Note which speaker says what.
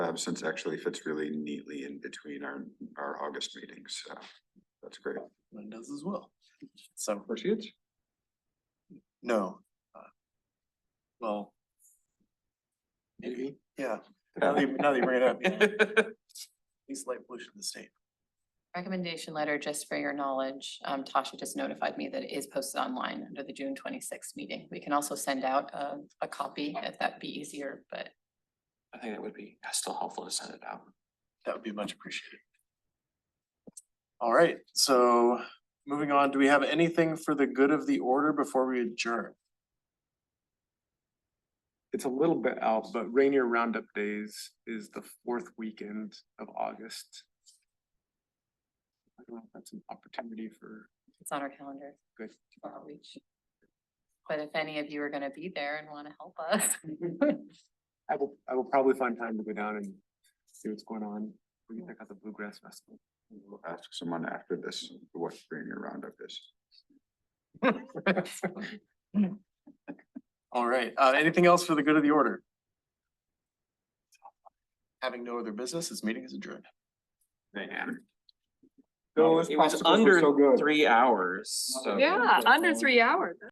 Speaker 1: absence um, actually fits really neatly in between our, our August meetings, so that's great.
Speaker 2: Mine does as well. So,
Speaker 1: Appreciate
Speaker 2: no. uh, Well. Maybe, yeah. Now that you, now that you bring it up. yeah. Least light pollution in the state.
Speaker 3: Recommendation letter, just for your knowledge, um, Tasha just notified me that it is posted online under the June twenty-sixth meeting. We can also send out a, a copy if that'd be easier, but
Speaker 4: I think it would be still helpful to send it out.
Speaker 2: That would be much appreciated. All right, so moving on, do we have anything for the good of the order before we adjourn?
Speaker 5: It's a little bit out, but Rainier Roundup Days is the fourth weekend of August. I don't know if that's an opportunity for,
Speaker 3: it's on our calendar.
Speaker 5: Good.
Speaker 3: for outreach. But if any of you are gonna be there and wanna help us,
Speaker 5: I will, I will probably find time to go down and see what's going on. We can check out the Bluegrass Festival.
Speaker 1: We'll Ask someone after this, what bring your roundup is.
Speaker 2: All right, uh, anything else for the good of the order? Having no other business, this meeting is adjourned.
Speaker 1: Man.
Speaker 4: It was under three hours, so.
Speaker 6: Yeah, under three hours.